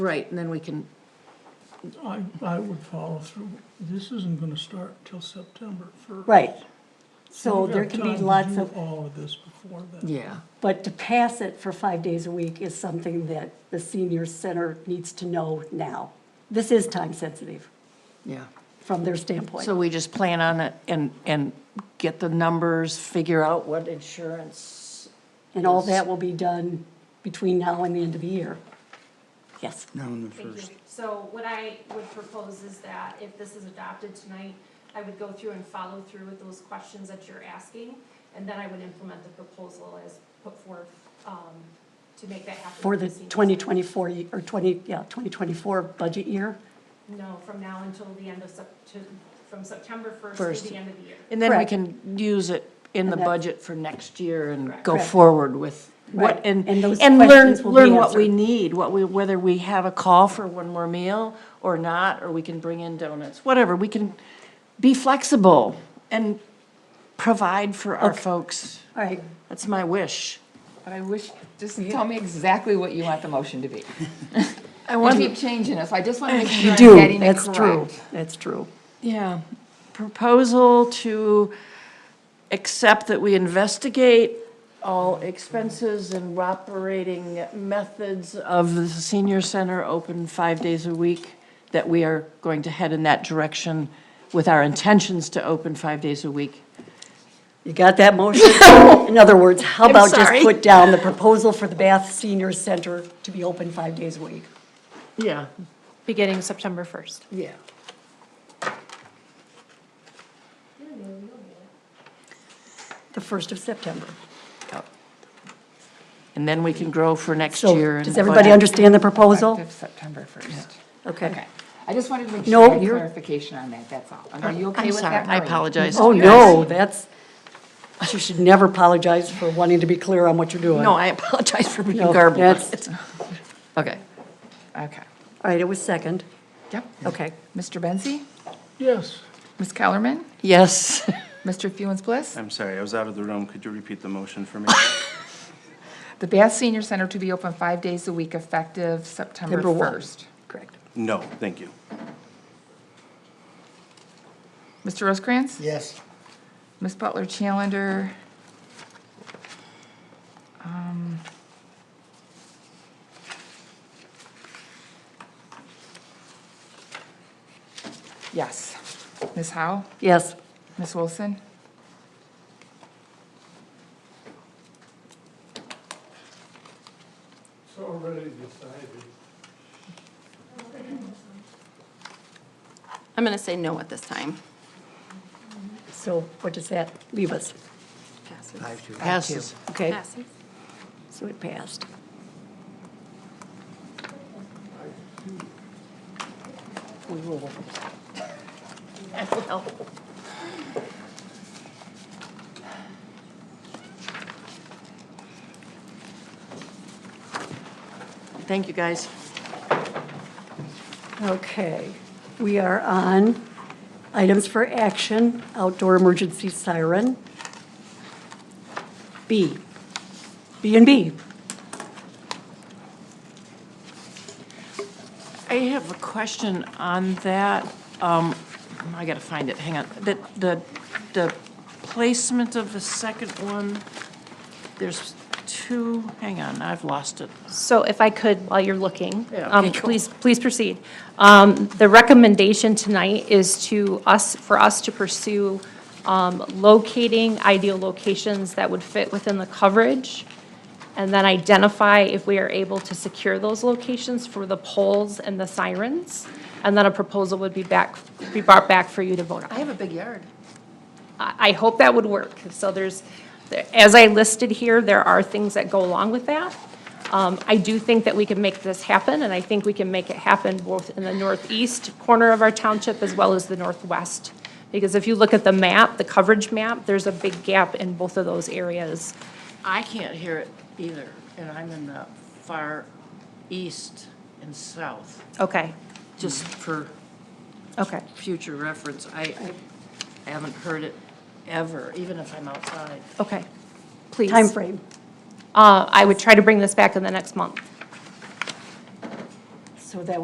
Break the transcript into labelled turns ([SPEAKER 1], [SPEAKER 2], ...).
[SPEAKER 1] Right, and then we can,
[SPEAKER 2] I, I would follow through. This isn't gonna start till September first.
[SPEAKER 3] Right. So there can be lots
[SPEAKER 2] to
[SPEAKER 3] of,
[SPEAKER 2] do all of this before then.
[SPEAKER 1] yeah,
[SPEAKER 3] but to pass it for five days a week is something that the senior center needs to know now. This is time sensitive
[SPEAKER 1] yeah.
[SPEAKER 3] from their standpoint.
[SPEAKER 1] So we just plan on it and, and get the numbers, figure out what insurance.
[SPEAKER 3] And all that will be done between now and the end of the year. Yes.
[SPEAKER 4] Now in the
[SPEAKER 5] Thank you.
[SPEAKER 4] first,
[SPEAKER 5] So what I would propose is that if this is adopted tonight, I would go through and follow through with those questions that you're asking, and then I would implement the proposal as put forth, um, to make that happen.
[SPEAKER 3] For the
[SPEAKER 5] seniors.
[SPEAKER 3] 2024, ye- or 20, yeah, 2024 budget year.
[SPEAKER 5] No, from now until the end of Sep, to, from September first
[SPEAKER 1] First.
[SPEAKER 5] to the end of the year.
[SPEAKER 1] And then we
[SPEAKER 3] Correct.
[SPEAKER 1] can use it in the
[SPEAKER 3] And that's-
[SPEAKER 1] budget for next year and go
[SPEAKER 3] Correct.
[SPEAKER 1] forward with what,
[SPEAKER 3] Right.
[SPEAKER 1] and,
[SPEAKER 3] And those
[SPEAKER 1] and learn,
[SPEAKER 3] questions will be
[SPEAKER 1] learn what we
[SPEAKER 3] answered.
[SPEAKER 1] need, what we, whether we have a call for one more meal or not, or we can bring in donuts, whatever. We can be flexible and provide for our folks.
[SPEAKER 3] All right,
[SPEAKER 1] That's my wish.
[SPEAKER 6] But I wish, just tell me exactly what you want the motion to be.
[SPEAKER 1] I
[SPEAKER 6] You
[SPEAKER 1] want
[SPEAKER 6] keep changing it, so I just want to make sure
[SPEAKER 3] you
[SPEAKER 6] I'm
[SPEAKER 3] do,
[SPEAKER 6] getting it
[SPEAKER 3] that's true,
[SPEAKER 6] correct.
[SPEAKER 3] that's true.
[SPEAKER 1] Yeah, proposal to accept that we investigate all expenses and operating methods of the senior center open five days a week, that we are going to head in that direction with our intentions to open five days a week.
[SPEAKER 3] You got that motion? In other words, how
[SPEAKER 1] I'm
[SPEAKER 3] about just
[SPEAKER 1] sorry.
[SPEAKER 3] put down the proposal for the Bath Senior Center to be open five days a week?
[SPEAKER 1] Yeah,
[SPEAKER 5] Beginning September first.
[SPEAKER 1] yeah.
[SPEAKER 3] The first of September.
[SPEAKER 1] And then we can grow for next
[SPEAKER 3] So,
[SPEAKER 1] year. and
[SPEAKER 3] does everybody
[SPEAKER 1] budget.
[SPEAKER 3] understand the proposal?
[SPEAKER 6] Effective September 1st.
[SPEAKER 3] Okay.
[SPEAKER 6] Okay. I just wanted to make
[SPEAKER 3] No,
[SPEAKER 6] sure I had
[SPEAKER 3] you're-
[SPEAKER 6] clarification on that, that's all. Are you okay
[SPEAKER 1] I'm
[SPEAKER 6] with
[SPEAKER 1] sorry,
[SPEAKER 6] that,
[SPEAKER 1] I
[SPEAKER 6] Maureen?
[SPEAKER 1] apologize.
[SPEAKER 3] Oh, no, that's, you should never apologize for wanting to be clear on what you're doing.
[SPEAKER 1] No, I apologize for being
[SPEAKER 3] No,
[SPEAKER 1] garbled.
[SPEAKER 3] that's-
[SPEAKER 1] Okay.
[SPEAKER 6] Okay.
[SPEAKER 3] All right, it was second.
[SPEAKER 6] Yep.
[SPEAKER 3] Okay.
[SPEAKER 6] Mr. Benzi?
[SPEAKER 2] Yes,
[SPEAKER 6] Ms. Kellerman?
[SPEAKER 1] Yes.
[SPEAKER 6] Mr. Fewens Bliss?
[SPEAKER 7] I'm sorry, I was out of the room. Could you repeat the motion for me?
[SPEAKER 6] The Bath Senior Center to be open five days a week effective September
[SPEAKER 3] Number one.
[SPEAKER 6] 1st.
[SPEAKER 3] Correct.
[SPEAKER 7] No, thank you.
[SPEAKER 6] Mr. Rosecrans?
[SPEAKER 8] Yes.
[SPEAKER 6] Ms. Butler Challenger. Um, Yes. Ms. Howe?
[SPEAKER 3] Yes.
[SPEAKER 6] Ms. Wilson?
[SPEAKER 8] It's already decided.
[SPEAKER 9] I'm going to say no at this time.
[SPEAKER 3] So what does that leave us?
[SPEAKER 9] Passes.
[SPEAKER 8] Five to.
[SPEAKER 1] Passes.
[SPEAKER 3] Okay,
[SPEAKER 9] Passes.
[SPEAKER 3] so it passed.
[SPEAKER 1] Thank you, guys.
[SPEAKER 3] Okay, we are on items for action, outdoor emergency siren. B, B and B.
[SPEAKER 1] I have a question on that. Um, I gotta find it, hang on. The, the, the placement of the second one, there's two, hang on, I've lost it.
[SPEAKER 5] So if I could, while you're looking,
[SPEAKER 1] Yeah,
[SPEAKER 5] um,
[SPEAKER 1] okay, cool.
[SPEAKER 5] please, please proceed. Um, The recommendation tonight is to us, for us to pursue um, locating ideal locations that would fit within the coverage, and then identify if we are able to secure those locations for the poles and the sirens, and then a proposal would be back, be brought back for you to vote on.
[SPEAKER 6] I have a big yard.
[SPEAKER 5] I, I hope that would work. So there's, there- as I listed here, there are things that go along with that. Um, I do think that we can make this happen, and I think we can make it happen both in the northeast corner of our township as well as the northwest. Because if you look at the map, the coverage map, there's a big gap in both of those areas.
[SPEAKER 1] I can't hear it either, and I'm in the far east and south,
[SPEAKER 5] Okay,
[SPEAKER 1] just for
[SPEAKER 5] okay.
[SPEAKER 1] future reference. I, I haven't heard it ever, even if I'm outside.
[SPEAKER 5] Okay, please.
[SPEAKER 3] Time frame.
[SPEAKER 5] Uh, I would try to bring this back in the next month.
[SPEAKER 3] so that